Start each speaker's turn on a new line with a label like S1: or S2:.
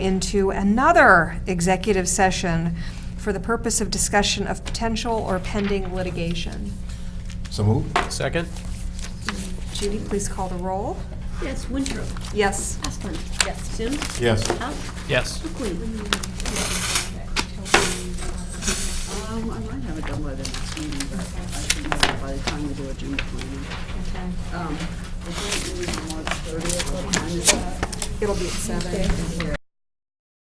S1: into another executive session for the purpose of discussion of potential or pending litigation.
S2: So moved?
S3: Second?
S1: Judy, please call the roll.
S4: Yes, Winthrop,
S1: Yes.
S4: Asplund. Yes. Sims.
S2: Yes.
S4: Out.
S3: Yes.
S4: McQueen. Um, I might have it done by the next meeting, but I think that by the time we do agenda planning. Um, I think it was March thirtieth, what time is that?
S1: It'll be at seven.